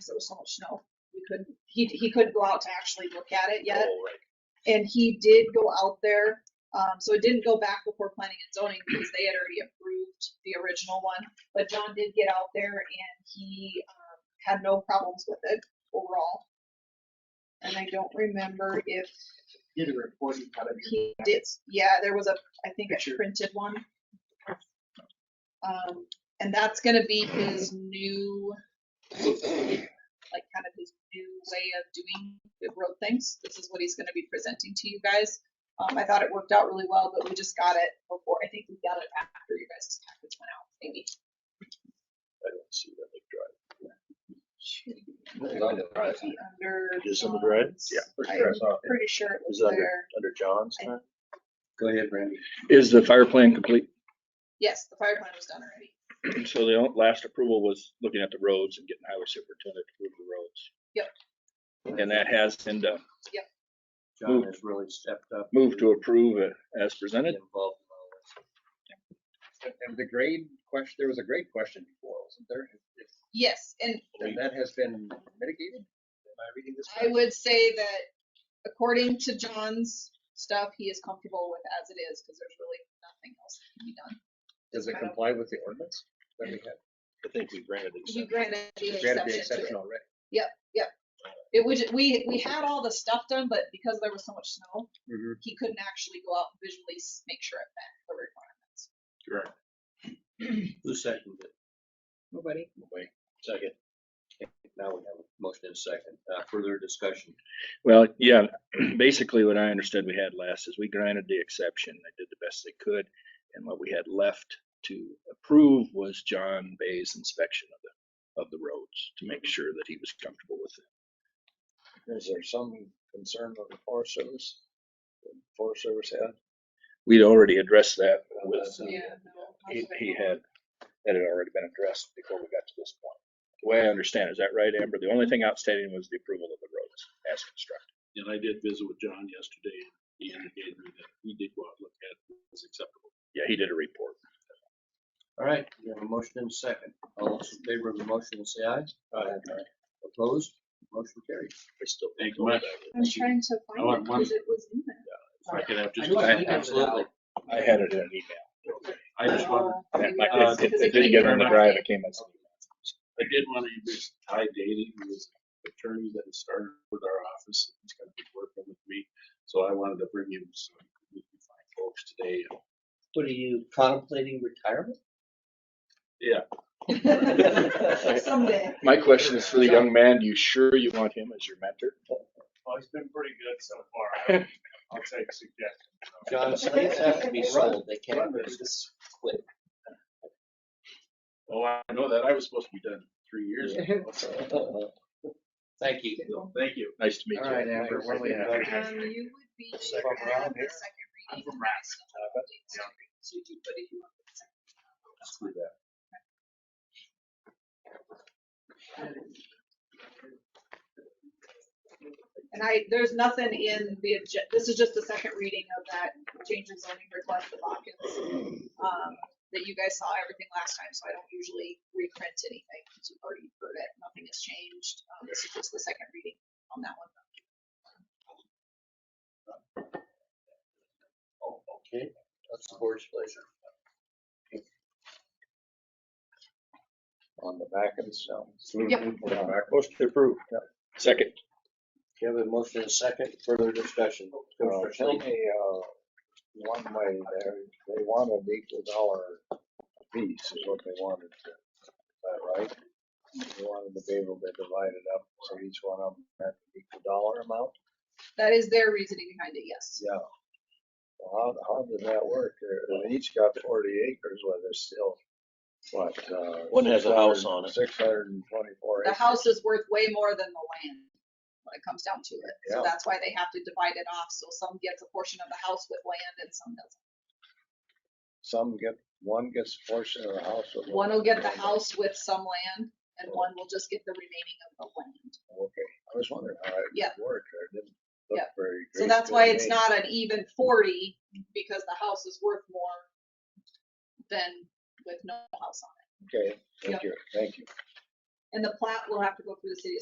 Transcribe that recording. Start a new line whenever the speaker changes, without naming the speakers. because there was so much snow. We couldn't, he, he couldn't go out to actually look at it yet.
Oh, right.
And he did go out there, um, so it didn't go back before planning and zoning because they had already approved the original one. But John did get out there and he, um, had no problems with it overall. And I don't remember if
Get a report, you gotta be.
he did, yeah, there was a, I think a
Picture.
printed one. Um, and that's gonna be his new, like kind of his new way of doing the road things. This is what he's gonna be presenting to you guys. Um, I thought it worked out really well, but we just got it before, I think we got it after you guys' package went out, maybe.
I don't see that big drive.
Should be Under.
Is it under red?
John's.
Yeah.
I'm pretty sure it was
Is it under,
there.
under John's?
I-
huh?
Go ahead, Randy.
Is the fire plan complete?
Yes, the fire plan was done already.
So the last approval was looking at the roads and getting highway superintendent to approve the roads. And that has been done.
John has really stepped up.
Move to approve it as presented.
Involved in all this.
And- And the grade question, there was a grade question before, wasn't there? If- if-
Yes, and
And that has been mitigated? Am I reading this
I
correctly?
would say that according to John's stuff, he is comfortable with as it is, because there's really nothing else that can be done.
Does
I
it
don't-
comply with the ordinance that we had?
I think we granted the
You
exception.
granted the
We had the exception
exception to it.
already.
It was, we, we had all the stuff done, but because there was so much snow,
Mhm.
he couldn't actually go out and visually s- make sure it met the requirements.
Who seconded it?
Nobody?
Wait, second. Okay, Now we have a motion and a second. Uh, further discussion.
Well, yeah, basically what I understood we had last is we granted the exception. They did the best they could. And what we had left to approve was John Bay's inspection of the, of the roads to make sure that he was comfortable with it.
Is there some concern with the Forest Service? The Forest Service had?
We'd already addressed that with, uh,
So-
Yeah. no,
he,
that's
he
fine.
had, that had already been addressed before we got to this point. The way I understand, it, is that right, Amber? The only thing outstanding was the approval of the roads as constructed.
And I did visit with John yesterday, and he indicated to me that he did go out and look at it, it was acceptable.
Yeah, he did a report.
All right, we have a motion and a second. All those in favor of the motion will say aye. Aye. Opposed? Motion carried.
I still.
Thank you much.
I'm trying to
I
Oh,
find
want
it,
one.
because it was in there.
If I could have just,
I-
Absolutely.
I had it in an email.
I just wanted,
Oh,
Uh,
And it might-
maybe that's
it-
because
It didn't get
came
on the
in.
drive, it came as. an email.
I did want to introduce Ty Daly, who is an attorney that has started with our office, he's gonna be working with me, so I wanted to bring him some, we can find folks today.
What are you contemplating retirement?
Someday.
My question is for the young man, you sure you want him as your mentor?
Well, he's been pretty good so far, I'll take suggestions.
John,
Slaves have to be sold, they can't
Run.
just quit.
Oh, I know that, I was supposed to be done three years ago, so,
Thank you.
thank you.
Nice to meet you.
Mm-hmm. All right, Amber, what do we have?
Um, you would be at the
Second round here.
second
I'm
reading.
from
of
Rax.
the updates.
Yeah.
So you do put it in the second round. That's fine. And I, there's nothing in the, agen- this is just the second reading of that change in zoning request for Hawkins. Um, that you guys saw everything last time, so I don't usually reprint anything, because you've already heard it, nothing has changed. Um, this is just the second reading on that one.
Okay, that's the board's pleasure.
On the back of the cell.
Yep.
Motion to approve.
Second,
We have a motion and a second. Further discussion.
Uh, Tell me, uh, one way there, they wanted equal dollar piece is what they wanted. Is that right? They wanted to be able to divide it up so each one of them had an equal dollar amount?
That is their reasoning behind it, yes.
Yeah. Well, How, how did that work? They're- They each got forty acres, where there's still, what, uh?
One has a house on it.
Six hundred and twenty-four
The
acres.
house is worth way more than the land when it comes down to it. So
Yeah.
that's why they have to divide it off, so some gets a portion of the house with land and some doesn't.
Some get, one gets a portion of the house. with
One will get the house with some land and one will just get the remaining of the land.
Okay, I was wondering how it
Yeah.
would work. It didn't look
Yeah.
very.
So
great
that's
to
why it's
me.
not an even forty, because the house is worth more than with no house on it.
Okay, thank
Yeah.
you, thank you.
And the plat will have to go through the city